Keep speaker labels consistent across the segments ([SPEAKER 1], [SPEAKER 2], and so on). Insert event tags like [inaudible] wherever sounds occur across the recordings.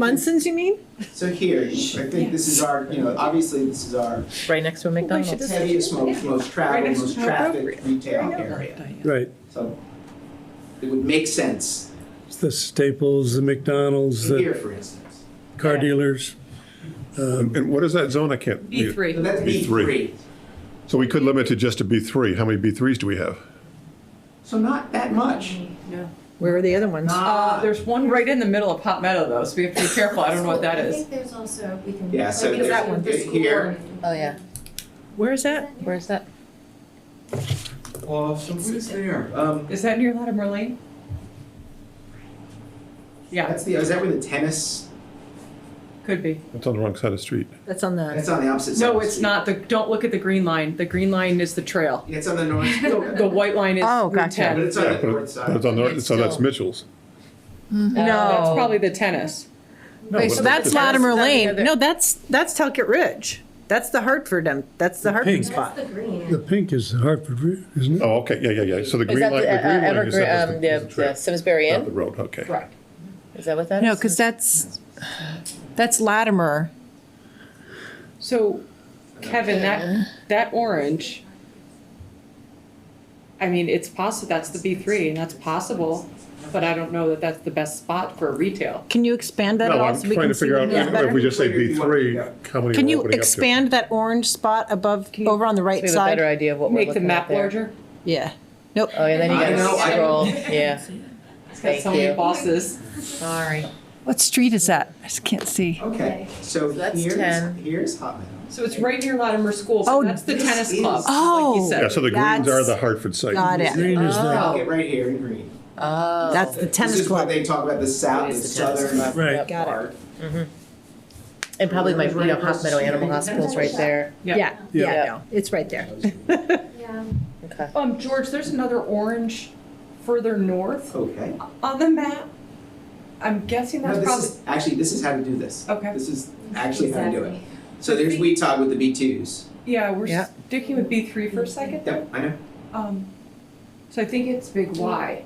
[SPEAKER 1] Munson's, you mean?
[SPEAKER 2] So here, I think this is our, you know, obviously this is our
[SPEAKER 3] right next to a McDonald's.
[SPEAKER 2] heaviest, most, most traveled,
[SPEAKER 1] Right,
[SPEAKER 2] most
[SPEAKER 1] it's
[SPEAKER 2] trafficked
[SPEAKER 1] appropriate.
[SPEAKER 2] retail
[SPEAKER 1] I know.
[SPEAKER 2] area.
[SPEAKER 4] Right,
[SPEAKER 2] So it would make sense
[SPEAKER 4] It's the Staples, the McDonald's, the
[SPEAKER 2] here, for instance.
[SPEAKER 4] car dealers. Um,
[SPEAKER 5] And what is that zone? I can't.
[SPEAKER 3] E.
[SPEAKER 6] B three.
[SPEAKER 2] So that's B
[SPEAKER 5] B three.
[SPEAKER 2] three.
[SPEAKER 5] So we could limit it just to B3. How many B3s do we have?
[SPEAKER 2] So not that much.
[SPEAKER 3] Where are the other ones?
[SPEAKER 6] Uh,
[SPEAKER 2] Not-
[SPEAKER 6] there's one right in the middle of Pot Meadow though, so we have to be careful. I don't know what that
[SPEAKER 7] I
[SPEAKER 6] is.
[SPEAKER 7] think there's also, we can.
[SPEAKER 2] Yeah, so
[SPEAKER 7] like, it's
[SPEAKER 2] there's-
[SPEAKER 7] in the
[SPEAKER 2] there's
[SPEAKER 7] school
[SPEAKER 2] here.
[SPEAKER 7] board.
[SPEAKER 3] Oh, yeah. Where is that? Where is that?
[SPEAKER 2] Well, so what is there? Um,
[SPEAKER 6] Is that near Latimer Lane? Yeah,
[SPEAKER 2] that's the, is that where the tennis,
[SPEAKER 6] could be.
[SPEAKER 5] It's on the wrong side of the street.
[SPEAKER 3] That's on the,
[SPEAKER 2] that's on the opposite side. of
[SPEAKER 6] No,
[SPEAKER 2] the
[SPEAKER 6] it's
[SPEAKER 2] street.
[SPEAKER 6] not. The, don't look at the green line. The green line is the trail.
[SPEAKER 2] It's on the north,
[SPEAKER 6] The, the white line is
[SPEAKER 3] Oh,
[SPEAKER 6] Route
[SPEAKER 3] gotcha.
[SPEAKER 6] 10.
[SPEAKER 2] but it's on
[SPEAKER 5] Yeah,
[SPEAKER 2] the
[SPEAKER 5] but
[SPEAKER 2] north
[SPEAKER 5] it- but it's
[SPEAKER 2] side.
[SPEAKER 5] on the, so that's
[SPEAKER 3] Still.
[SPEAKER 5] Mitchell's.
[SPEAKER 3] no.
[SPEAKER 6] Uh, That's probably the tennis.
[SPEAKER 5] No,
[SPEAKER 3] so
[SPEAKER 5] but
[SPEAKER 1] That's
[SPEAKER 5] it's-
[SPEAKER 1] Latimer
[SPEAKER 3] That's not
[SPEAKER 1] Lane.
[SPEAKER 3] together.
[SPEAKER 1] No, that's, that's Talcott Ridge. That's the Hartford, um, that's the Hartford
[SPEAKER 4] pink.
[SPEAKER 1] spot.
[SPEAKER 7] That's the green.
[SPEAKER 4] The pink is Hartford, Re- isn't it?
[SPEAKER 5] Oh, okay, yeah, yeah, yeah. So the
[SPEAKER 3] Is
[SPEAKER 5] green
[SPEAKER 3] that
[SPEAKER 5] light, the
[SPEAKER 3] the, uh,
[SPEAKER 5] green line
[SPEAKER 3] Evergreen,
[SPEAKER 5] is
[SPEAKER 3] um,
[SPEAKER 5] that is the, is
[SPEAKER 3] the
[SPEAKER 5] the
[SPEAKER 3] the
[SPEAKER 5] trail,
[SPEAKER 3] Simsbury
[SPEAKER 5] not the
[SPEAKER 3] Inn?
[SPEAKER 5] road, okay.
[SPEAKER 6] Correct.
[SPEAKER 3] Is that what that is?
[SPEAKER 1] No, because that's, that's Latimer.
[SPEAKER 6] So, Kevin, that, that orange, I mean, it's possible, that's the B three, and that's possible, but I don't know that that's the best spot for retail.
[SPEAKER 1] Can you expand that at
[SPEAKER 5] No,
[SPEAKER 1] all?
[SPEAKER 5] I'm
[SPEAKER 1] so we
[SPEAKER 5] trying
[SPEAKER 1] can
[SPEAKER 5] to
[SPEAKER 1] see
[SPEAKER 5] figure
[SPEAKER 1] them
[SPEAKER 5] out,
[SPEAKER 1] a little
[SPEAKER 5] if we
[SPEAKER 1] better?
[SPEAKER 5] just say B3, how many
[SPEAKER 1] Can
[SPEAKER 5] we're
[SPEAKER 1] you
[SPEAKER 5] opening up to.
[SPEAKER 1] expand that orange spot above,
[SPEAKER 6] Can you-
[SPEAKER 1] over on the right
[SPEAKER 3] We have a better
[SPEAKER 1] side?
[SPEAKER 3] idea of what we're
[SPEAKER 6] Make the
[SPEAKER 3] looking at
[SPEAKER 6] map
[SPEAKER 3] there.
[SPEAKER 6] larger,
[SPEAKER 1] Yeah. Nope.
[SPEAKER 3] Oh, and then you
[SPEAKER 2] I know,
[SPEAKER 3] gotta
[SPEAKER 2] I-
[SPEAKER 3] scroll, [laughs] yeah.
[SPEAKER 6] it's got
[SPEAKER 3] Thank
[SPEAKER 6] so many
[SPEAKER 3] you.
[SPEAKER 6] bosses.
[SPEAKER 3] Sorry.
[SPEAKER 8] What street is that? I just can't see.
[SPEAKER 2] Okay, so
[SPEAKER 3] that's
[SPEAKER 2] here's,
[SPEAKER 3] 10.
[SPEAKER 2] here's Hot Meadow.
[SPEAKER 6] So it's right near Latimer School, so
[SPEAKER 1] Oh,
[SPEAKER 6] that's the
[SPEAKER 2] this
[SPEAKER 6] tennis
[SPEAKER 2] is-
[SPEAKER 6] club, like
[SPEAKER 1] Oh.
[SPEAKER 6] you
[SPEAKER 5] Yeah,
[SPEAKER 6] said.
[SPEAKER 5] so the greens are
[SPEAKER 1] That's-
[SPEAKER 5] the Hartford site.
[SPEAKER 1] Got it.
[SPEAKER 4] Green is the,
[SPEAKER 2] Talcott right here in green.
[SPEAKER 3] Oh.
[SPEAKER 1] That's the
[SPEAKER 2] This
[SPEAKER 1] tennis
[SPEAKER 2] is what
[SPEAKER 1] club.
[SPEAKER 2] they talk about, the south,
[SPEAKER 3] It
[SPEAKER 2] the
[SPEAKER 3] is the tennis
[SPEAKER 2] southern.
[SPEAKER 3] club.
[SPEAKER 4] Right.
[SPEAKER 1] Got it.
[SPEAKER 2] part.
[SPEAKER 3] And probably my, you know, Hot Meadow Animal Hospital's right there.
[SPEAKER 6] Yeah.
[SPEAKER 4] Yeah.
[SPEAKER 3] Yeah.
[SPEAKER 1] no, It's right there.
[SPEAKER 7] Yeah.
[SPEAKER 3] Okay.
[SPEAKER 6] Um, George, there's another orange further north
[SPEAKER 2] Okay.
[SPEAKER 6] on the map. I'm guessing
[SPEAKER 2] No,
[SPEAKER 6] that's
[SPEAKER 2] this
[SPEAKER 6] probably,
[SPEAKER 2] is, actually, this is how to do this.
[SPEAKER 6] Okay.
[SPEAKER 2] This is actually how to do it.
[SPEAKER 7] Exactly.
[SPEAKER 2] So there's Weetag with the B twos.
[SPEAKER 6] yeah, we're
[SPEAKER 3] Yeah.
[SPEAKER 6] sticking with B three for a second.
[SPEAKER 2] Yep, I know.
[SPEAKER 6] Um, so I think it's big Y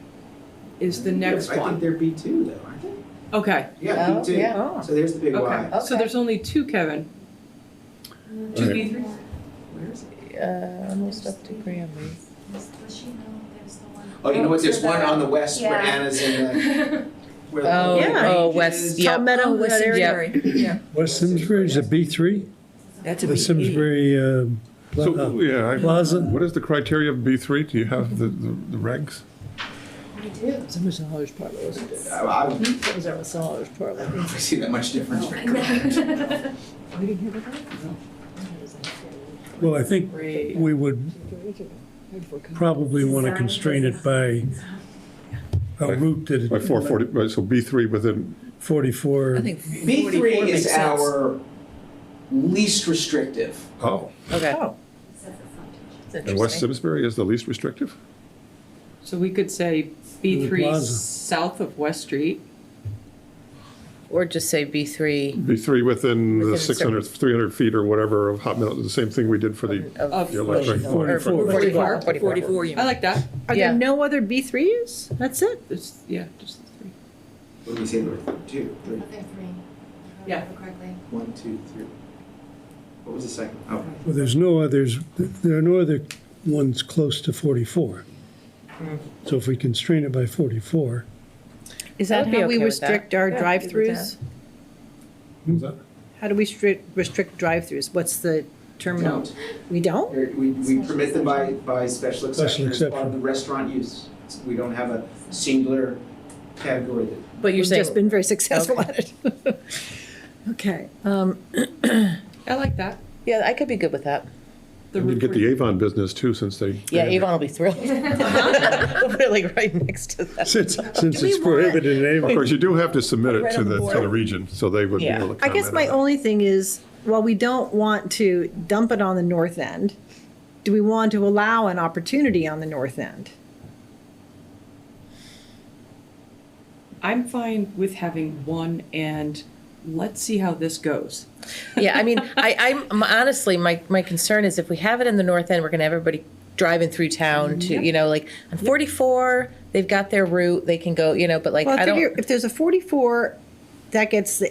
[SPEAKER 6] is the next
[SPEAKER 2] I think
[SPEAKER 6] one.
[SPEAKER 2] they're B two though, aren't they?
[SPEAKER 6] Okay,
[SPEAKER 2] Yeah,
[SPEAKER 3] Oh,
[SPEAKER 2] B two.
[SPEAKER 3] yeah.
[SPEAKER 2] So there's the big
[SPEAKER 6] okay.
[SPEAKER 2] Y.
[SPEAKER 6] So
[SPEAKER 3] Okay.
[SPEAKER 6] there's only two, Kevin. Two
[SPEAKER 7] Mm-hmm.
[SPEAKER 5] Right.
[SPEAKER 6] B three.
[SPEAKER 3] Uh, almost up to Grammy.
[SPEAKER 7] Does does she know there's the one?
[SPEAKER 2] Oh, you know what, there's one on the west where
[SPEAKER 7] Yeah.
[SPEAKER 2] Anna's
[SPEAKER 7] [laughs]
[SPEAKER 2] in the, where the.
[SPEAKER 3] Oh,
[SPEAKER 2] where the
[SPEAKER 3] oh,
[SPEAKER 2] range
[SPEAKER 3] west,
[SPEAKER 2] is.
[SPEAKER 3] yeah. Yep.
[SPEAKER 1] Palmetto,
[SPEAKER 3] Oh,
[SPEAKER 1] West
[SPEAKER 3] that area.
[SPEAKER 1] Simsbury.
[SPEAKER 4] West Simsbury, is it B3?
[SPEAKER 6] That's
[SPEAKER 3] E.
[SPEAKER 4] The Simsbury um, pla-
[SPEAKER 5] So,
[SPEAKER 4] uh,
[SPEAKER 5] yeah, I-
[SPEAKER 4] Plaza?
[SPEAKER 5] what is the criteria of B3? Do you have the, the the regs?
[SPEAKER 7] We do.
[SPEAKER 3] Somebody's in Holler's Parlor, wasn't it?
[SPEAKER 2] I, uh, I don't
[SPEAKER 3] Somebody's in Holler's Parlor.
[SPEAKER 2] see that much difference.
[SPEAKER 7] I [laughs] know.
[SPEAKER 4] Well, I think
[SPEAKER 6] Great.
[SPEAKER 4] we would probably want to constrain it by a route that.
[SPEAKER 5] By 440, right, so B3 within,
[SPEAKER 4] 44.
[SPEAKER 2] B three is our least restrictive.
[SPEAKER 5] oh.
[SPEAKER 3] Okay.
[SPEAKER 7] Except for frontage.
[SPEAKER 3] That's
[SPEAKER 5] And West
[SPEAKER 3] interesting.
[SPEAKER 5] Simsbury is the least restrictive?
[SPEAKER 6] So we could say B
[SPEAKER 4] The
[SPEAKER 6] three
[SPEAKER 4] plaza.
[SPEAKER 6] south of West Street.
[SPEAKER 3] Or just say B three
[SPEAKER 5] B3 within
[SPEAKER 3] Within
[SPEAKER 5] the
[SPEAKER 3] a certain-
[SPEAKER 5] 600, 300 feet or whatever of Hot Meadow, the same thing we did for the
[SPEAKER 3] of.
[SPEAKER 5] Yeah, like- like
[SPEAKER 3] or
[SPEAKER 4] 44.
[SPEAKER 3] Forty-four. Uh,
[SPEAKER 6] I like that.
[SPEAKER 1] Are
[SPEAKER 3] Yeah.
[SPEAKER 1] there no other B3s? That's it?
[SPEAKER 6] It's, yeah, just the three.
[SPEAKER 2] What do we say, there were two, three,
[SPEAKER 7] But they're three. if I
[SPEAKER 6] Yeah.
[SPEAKER 7] remember Correctly.
[SPEAKER 2] one, two, three. What was the second? Oh,
[SPEAKER 4] Well, there's no others, there are no other ones close to 44. So if we constrain it by 44,
[SPEAKER 1] Is
[SPEAKER 3] I
[SPEAKER 1] that
[SPEAKER 3] would be
[SPEAKER 1] how we
[SPEAKER 3] okay with that.
[SPEAKER 1] restrict our
[SPEAKER 3] Yeah, I could do
[SPEAKER 1] drive-throughs?
[SPEAKER 5] Who's that?
[SPEAKER 1] How do we stri- restrict drive-throughs? What's the terminal?
[SPEAKER 2] don't.
[SPEAKER 1] We don't?
[SPEAKER 2] There- We, we permit them by, by special exception as part of
[SPEAKER 4] exception.
[SPEAKER 2] the restaurant use. We don't have a singular category that
[SPEAKER 3] But you're
[SPEAKER 1] We've just
[SPEAKER 3] saying,
[SPEAKER 1] been very successful at it. [laughs] Okay, um,
[SPEAKER 6] I like that.
[SPEAKER 3] yeah, I could be good with that.
[SPEAKER 6] The
[SPEAKER 5] And you
[SPEAKER 6] Route
[SPEAKER 5] get the
[SPEAKER 6] 40.
[SPEAKER 5] Avon business too, since they.
[SPEAKER 3] Yeah, Avon will be thrilled. [laughs] Really right next to that.
[SPEAKER 4] since, since it's prohibited in
[SPEAKER 5] Of
[SPEAKER 4] Avon.
[SPEAKER 5] course, you do have to submit it to the, to the region, so they would be
[SPEAKER 3] Yeah.
[SPEAKER 5] able to comment
[SPEAKER 1] I guess my
[SPEAKER 5] on it.
[SPEAKER 1] only thing is, while we don't want to dump it on the north end, do we want to allow an opportunity on the north end?
[SPEAKER 6] I'm fine with having one and let's see how this goes.
[SPEAKER 3] Yeah, I mean, I, I'm I'm honestly, my, my concern is if we have it in the north end, we're gonna have everybody driving through town to, you know, like on forty-four, they've got their route, they can go, you know, but like,
[SPEAKER 1] Well,
[SPEAKER 3] I
[SPEAKER 1] I
[SPEAKER 3] don't.
[SPEAKER 1] figure if there's a 44, that gets the